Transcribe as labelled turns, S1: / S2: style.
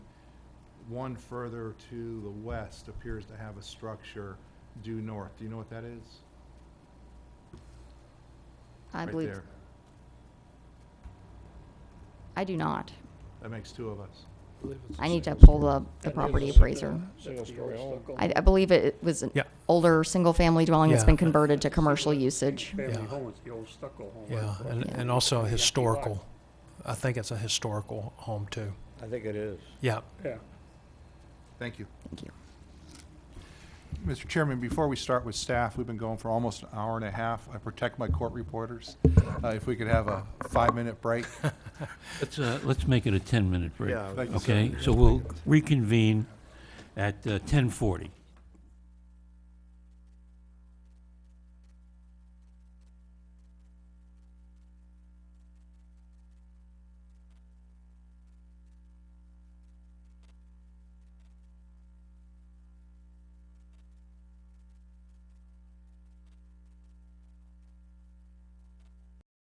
S1: one further to the west appears to have a structure due north. Do you know what that is?
S2: I
S1: Right
S2: believe,
S1: there.
S2: I do not.
S1: That makes two of us.
S2: I need to pull the, the property appraiser.
S3: Single-story home.
S2: I, I believe it was an
S4: Yeah.
S2: older, single-family dwelling that's
S4: Yeah.
S2: been converted to commercial usage.
S3: Family
S4: Yeah.
S3: home, it's the old stucco home.
S4: Yeah, and,
S2: Yeah.
S4: and also a historical. I think it's a historical home too.
S5: I think it is.
S4: Yeah,
S3: Yeah,
S1: Thank you.
S2: Thank you.
S1: Mr. Chairman, before we start with staff, we've been going for almost an hour and a half. I protect my court reporters. Uh, If we could have a five-minute break.
S6: Let's, uh, let's make it a 10-minute break.
S5: Yeah,
S1: Thank you, sir.
S6: Okay, so we'll reconvene at uh, 10:40.